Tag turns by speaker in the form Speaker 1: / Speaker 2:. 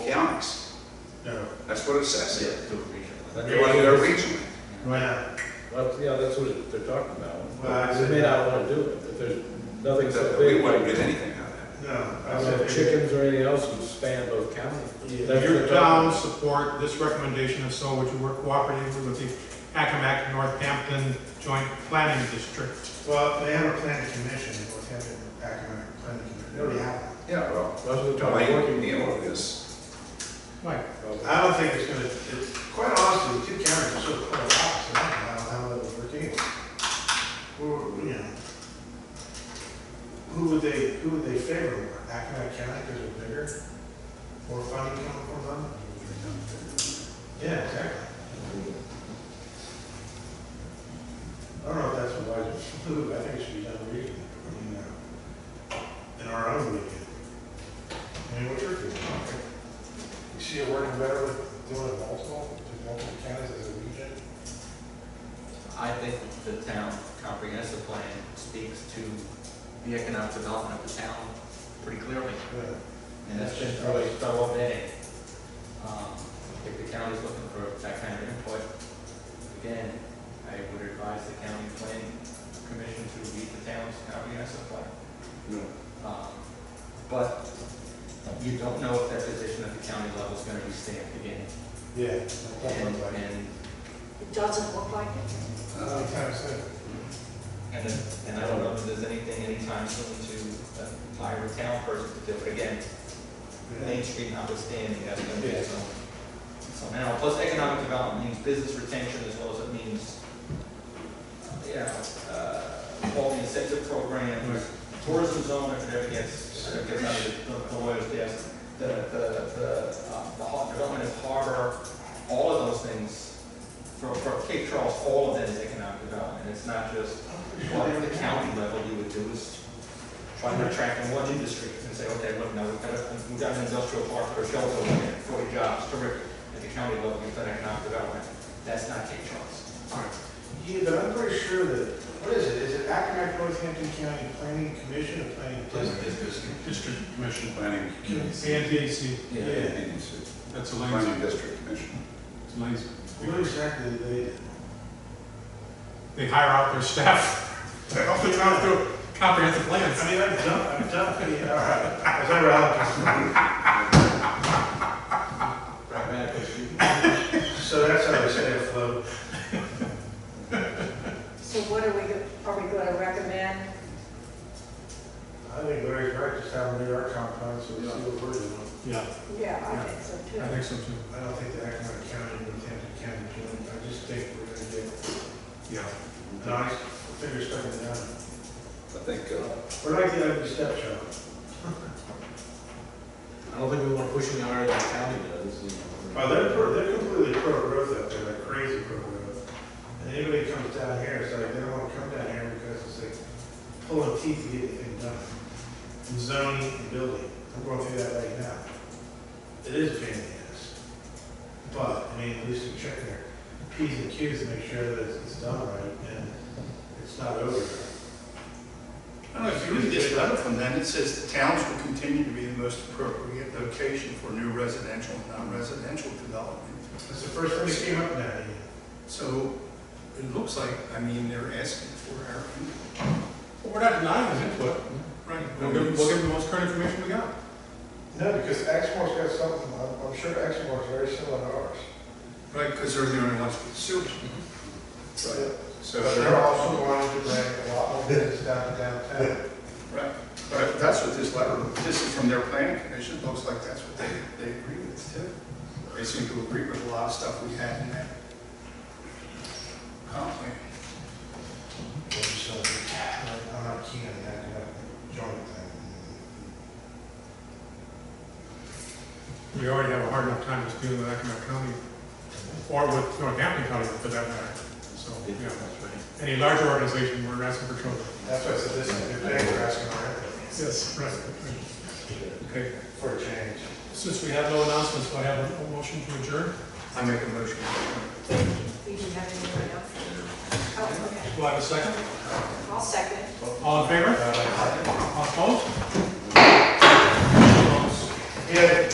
Speaker 1: No, no.
Speaker 2: That's what it says
Speaker 3: Yeah,
Speaker 2: here.
Speaker 3: do it regionally.
Speaker 2: They want to go regional.
Speaker 1: Yeah,
Speaker 3: Well, yeah, that's what they're talking
Speaker 1: Well, I
Speaker 3: about.
Speaker 1: said-
Speaker 3: We may not want to do it, if there's nothing so
Speaker 2: That We
Speaker 3: big.
Speaker 2: wouldn't get anything out of
Speaker 1: no.
Speaker 3: I
Speaker 1: I
Speaker 3: don't know,
Speaker 1: said-
Speaker 3: chickens or anything else would span both counties. That's
Speaker 4: Your
Speaker 3: the town.
Speaker 4: town support this recommendation, if so, would you work cooperatively with the Accomack Northampton Joint Planning District?
Speaker 1: Well, they have a planning commission, they both have a academic planning commission, they already have.
Speaker 2: it. Yeah, well,
Speaker 3: Most of the town
Speaker 2: Wayne,
Speaker 3: working.
Speaker 2: you know this.
Speaker 4: Mike?
Speaker 1: one. Um, I don't think it's gonna, it's, quite honestly, the two counties are so far apart, so I don't know how that would work anyway. Or, you know, who would they, who would they favor more, Academic County, because they're bigger, more funding coming from them? Yeah, exactly. I don't know if that's a wise move, I think it should be done regionally, you know, in our own region. I mean, what's your opinion? You see it working better with doing it multiple, doing multiple counties as a region?
Speaker 5: I think the town comprehensive plan speaks to the economic development of the town pretty clearly. And that's been really thorough all day. Um, I think the county's looking for that kind of input. Again, I would advise the county planning commission to read the town's comprehensive plan. Um, But you don't know if that position at the county level is gonna be stamped again.
Speaker 1: Yeah.
Speaker 5: And,
Speaker 1: that's what I'm like.
Speaker 5: and
Speaker 6: It doesn't look like it.
Speaker 2: Uh,
Speaker 1: Sometimes, so.
Speaker 5: And, then- and I don't know if there's anything anytime soon to uh, hire a town person to do it. Again, Main Street notwithstanding, that's gonna be some, some, now, plus economic development means business retention as well as it means, uh, you know, uh, all the incentive programs, tourism zone, if it ever gets, if it gets out of the- the lawyer's desk, the, the, the, uh, the har- development of harbor, all of those things, for, for Cape Charles, all of that is economic development, it's not just well, at the county level, you would do is try to attract in one industry and say, okay, look, now we've got, a- we've got an industrial park or shelter over there, forty jobs, terrific. At the county level, you've done economic development. That's not Cape Charles.
Speaker 1: Yeah, but I'm pretty sure that, what is it, is it Accomack Northampton County Planning Commission or Planning?
Speaker 2: It's just
Speaker 4: District Commission.
Speaker 2: planning.
Speaker 4: PNDAC,
Speaker 1: Yeah.
Speaker 2: And it's
Speaker 4: that's a
Speaker 2: a
Speaker 4: lanes,
Speaker 2: Planning district commission.
Speaker 4: it's a lanes.
Speaker 1: What exactly do they?
Speaker 4: They hire out their staff. They help them out through comprehensive plans.
Speaker 1: I mean, I've done, I've done, pretty- all right. I was never out. So that's how they stay afloat.
Speaker 6: So what are we, go- are we going to recommend?
Speaker 1: I think Larry's right, just have them do our comp plan, so we see what we're doing.
Speaker 4: Yeah,
Speaker 6: Yeah, I think so
Speaker 4: I
Speaker 6: too.
Speaker 4: think so too.
Speaker 1: I don't think the Accomack County, Northampton County, doing it. I just think we're gonna get
Speaker 4: Yeah.
Speaker 1: a nice figure starting down.
Speaker 2: I think, uh,
Speaker 1: We're like the ugly stepchild.
Speaker 3: I don't think we want to push any harder than the county does, you know.
Speaker 1: Oh, they're, pro- they're completely pro-growth up there, like crazy pro-growth. And anybody comes down here, it's like, they don't wanna come down here because it's like pulling teeth to get anything done. And zoning and building, I'm going through that right now. It is a pain in the ass. But, I mean, at least you check their Ps and Qs to make sure that it's, it's done right and it's not over.
Speaker 7: I don't know if you read this letter from them, it says the towns will continue to be the most appropriate location for new residential and non-residential development.
Speaker 1: That's the first thing that came up now,
Speaker 7: So it looks like, I mean, they're asking for our input.
Speaker 4: Well, we're not denying his input.
Speaker 7: Right.
Speaker 4: Mm-hmm. We'll give, we'll give him the most current information we got.
Speaker 1: No, because Exmoor's got something, I'm, I'm sure Exmoor's very similar to ours.
Speaker 7: Right, because they're the only ones with sewage. Mm-hmm. So,
Speaker 1: But they're also going to bring a lot more business down to downtown.
Speaker 7: right, but that's what this letter, this is from their planning commission, it looks like that's what they, they agree with too. They seem to agree with a lot of stuff we had in that comp plan.
Speaker 1: Or something. I'm not keen on that, you know, joint thing.
Speaker 4: We already have a hard enough time just dealing with Accomack County, or with Northampton County for that matter. So,
Speaker 3: Yeah,
Speaker 4: yeah,
Speaker 3: that's right.
Speaker 4: any larger organization, we're asking for trouble.
Speaker 1: That's why I said this is a good thing, we're asking our input
Speaker 4: Yes. Right. Okay,
Speaker 1: for a change.
Speaker 4: since we have no announcements, do I have a- a motion to adjourn?
Speaker 7: I make a motion.
Speaker 6: We didn't have anyone else. Oh, okay.
Speaker 4: Do I have a second?
Speaker 6: I'll second.
Speaker 4: All in Uh, favor? All opposed?
Speaker 1: Yeah,